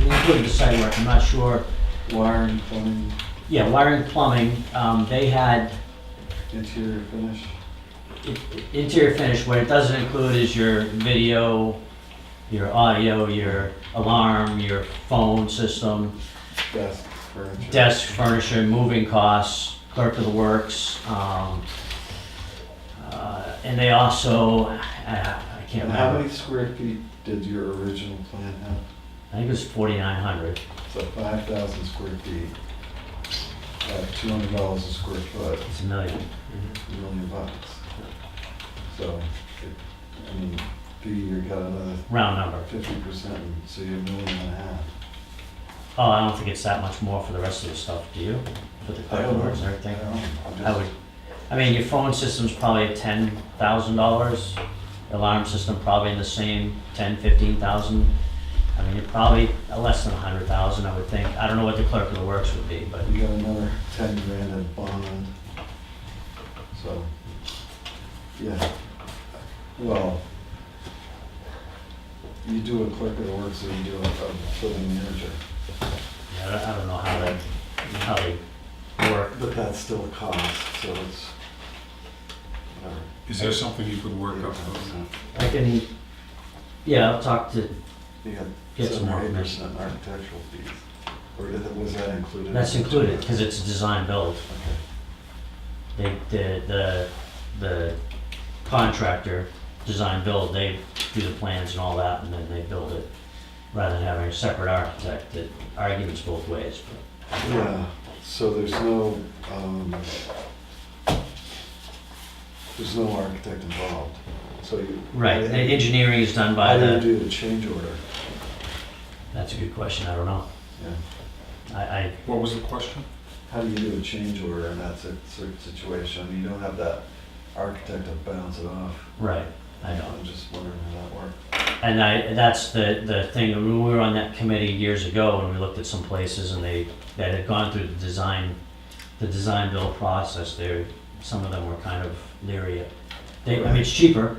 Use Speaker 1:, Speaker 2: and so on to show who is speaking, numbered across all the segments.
Speaker 1: including the site work, I'm not sure.
Speaker 2: Wiring, plumbing,
Speaker 1: Yeah, wiring, plumbing, um, they had
Speaker 2: interior finish.
Speaker 1: i- interior finish, what it doesn't include is your video, your audio, your alarm, your phone system,
Speaker 2: Desk, furniture.
Speaker 1: desk furniture, moving costs, clerk of the works, um, uh, and they also, I, I can't
Speaker 2: And how
Speaker 1: remember,
Speaker 2: many square feet did your original plan have?
Speaker 1: I think it was forty-nine hundred.
Speaker 2: So five thousand square feet. At two hundred dollars a square foot,
Speaker 1: It's a million.
Speaker 2: a million bucks. So, it- I mean, figure you got another
Speaker 1: Round number.
Speaker 2: fifty percent, so you're a million and a half.
Speaker 1: Oh, I don't think it's that much more for the rest of the stuff, do you? For the credit cards and everything? I would, I mean, your phone system's probably at ten thousand dollars. Alarm system probably in the same ten, fifteen thousand. I mean, you're probably less than a hundred thousand, I would think. I don't know what the clerk of the works would be, but
Speaker 2: You got another ten grand in bond. So, yeah, well, you do a clerk of the works or you do a a building manager,
Speaker 1: I don't, I don't know how they, how they work.
Speaker 2: but that's still a cost, so it's. whatever.
Speaker 3: Is there something you could work up?
Speaker 1: I can, yeah, I'll talk to,
Speaker 2: You got
Speaker 1: Get some
Speaker 2: seven
Speaker 1: more
Speaker 2: or eight
Speaker 1: information.
Speaker 2: percent architectural fees, or is it- was that included?
Speaker 1: that's included, because it's a design build.
Speaker 2: Okay.
Speaker 1: they, the, the, the contractor, design build, they do the plans and all that, and then they build it, rather than having a separate architect, that arguments both ways, but,
Speaker 2: Yeah, so there's no, um, there's no architect involved, so you.
Speaker 1: right, the engineering is done by
Speaker 2: How do you
Speaker 1: the,
Speaker 2: do the change order?
Speaker 1: that's a good question, I don't know.
Speaker 2: Yeah.
Speaker 1: I, I,
Speaker 3: What was the question?
Speaker 2: How do you do a change order in that cer- cer- situation? You don't have that architect to bounce it off.
Speaker 1: right, I know.
Speaker 2: I'm just wondering how that worked.
Speaker 1: And I, that's the, the thing, when we were on that committee years ago, and we looked at some places, and they, that had gone through the design, the design build process, there, some of them were kind of leery. They, I mean, it's cheaper,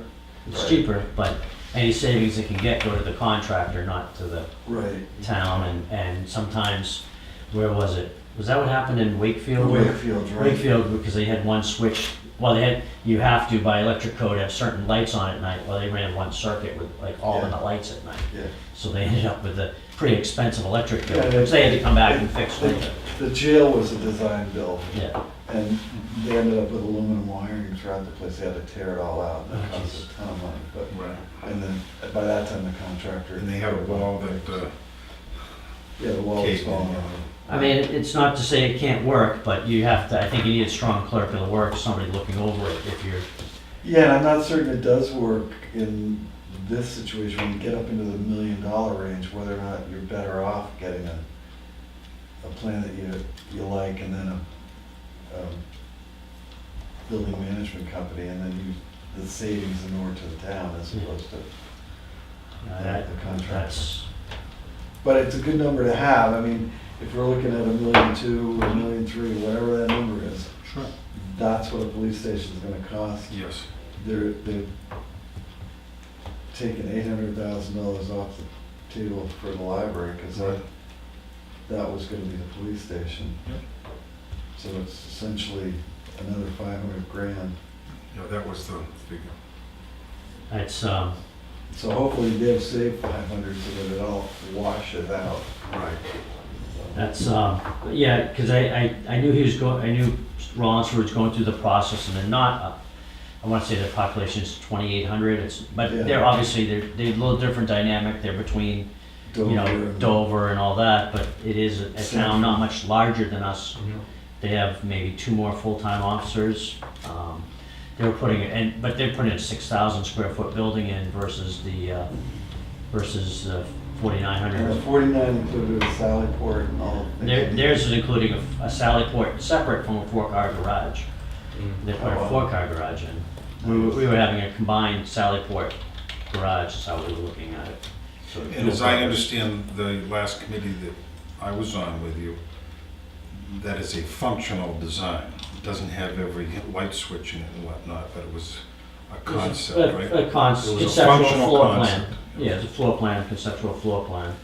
Speaker 1: it's
Speaker 2: Right.
Speaker 1: cheaper, but any savings they can get go to the contractor, not to the
Speaker 2: Right.
Speaker 1: town, and, and sometimes, where was it? Was that what happened in Wakefield? where-
Speaker 2: Wakefield, right?
Speaker 1: Wakefield, because they had one switch, well, they had, you have to by electric code have certain lights on at night, well, they ran one circuit with like all of the
Speaker 2: Yeah.
Speaker 1: lights at night.
Speaker 2: Yeah.
Speaker 1: So they ended up with a pretty expensive electric bill,
Speaker 2: Yeah, they-
Speaker 1: which they had to come back and fix
Speaker 2: they-
Speaker 1: later.
Speaker 2: The jail was a design build,
Speaker 1: Yeah,
Speaker 2: and they ended up with aluminum wiring throughout the place. They had to tear it all out, and it
Speaker 1: Oh,
Speaker 2: cost
Speaker 1: jeez.
Speaker 2: a ton of money, but
Speaker 3: Right.
Speaker 2: And then by that time, the contractor.
Speaker 3: And they have a wall that, uh,
Speaker 2: Yeah, the wall was
Speaker 3: Caved in,
Speaker 2: falling
Speaker 3: yeah.
Speaker 2: over.
Speaker 1: I mean, it's not to say it can't work, but you have to, I think you need a strong clerk of the works, somebody looking over it if you're,
Speaker 2: Yeah, and I'm not certain it does work in this situation, when you get up into the million dollar range, whether or not you're better off getting a, a plan that you, you like and then a, um, building management company and then you, the savings in order to the town
Speaker 3: Hmm.
Speaker 2: as opposed to.
Speaker 3: Uh,
Speaker 1: you know, that,
Speaker 2: The contract.
Speaker 1: that's,
Speaker 2: But it's a good number to have, I mean, if we're looking at a million two, a million three, whatever that number is,
Speaker 3: sure,
Speaker 2: that's what a police station's gonna cost.
Speaker 3: yes.
Speaker 2: They're, they've taken eight hundred thousand dollars off the table for the library, cause that, that was gonna be the police station.
Speaker 3: Yep.
Speaker 2: So it's essentially another five hundred grand.
Speaker 3: Yeah, that was the figure.
Speaker 1: that's, um,
Speaker 2: So hopefully they've saved five hundred so that it all washes out.
Speaker 3: Right.
Speaker 2: So-
Speaker 1: that's, um, yeah, because I, I, I knew he was going, I knew Rollinsford was going through the process and they're not, uh, I want to say the population's twenty-eight hundred, it's, but
Speaker 2: Yeah.
Speaker 1: they're obviously, they're, they're a little different dynamic, they're between you
Speaker 2: Dover
Speaker 1: know,
Speaker 2: and-
Speaker 1: Dover and all that, but it is a a town not much larger than us. They have maybe two more full-time officers. Um, They were putting, it- and, but they're putting a six thousand square foot building in versus the, uh, versus forty-nine
Speaker 2: And the
Speaker 1: hundred.
Speaker 2: forty-nine included a Sallyport and all. the things
Speaker 1: There,
Speaker 2: that-
Speaker 1: theirs is including a a sally port, separate from a four-car garage.
Speaker 3: Mm-hmm.
Speaker 1: They put
Speaker 2: Oh,
Speaker 1: a
Speaker 2: wow.
Speaker 1: four-car garage in. We were, we were having a combined sally port garage, is how we were looking at it. So
Speaker 3: And as I understand, the last committee that I was on with you, that is a functional design. It doesn't have every light switch in it and whatnot, but it was a
Speaker 1: It was a-
Speaker 3: concept,
Speaker 1: a-
Speaker 3: right?
Speaker 1: A con-
Speaker 3: It was a
Speaker 1: conceptual
Speaker 3: functional
Speaker 1: floor plan.
Speaker 3: concept.
Speaker 1: Yeah, it's a floor plan, conceptual floor plan.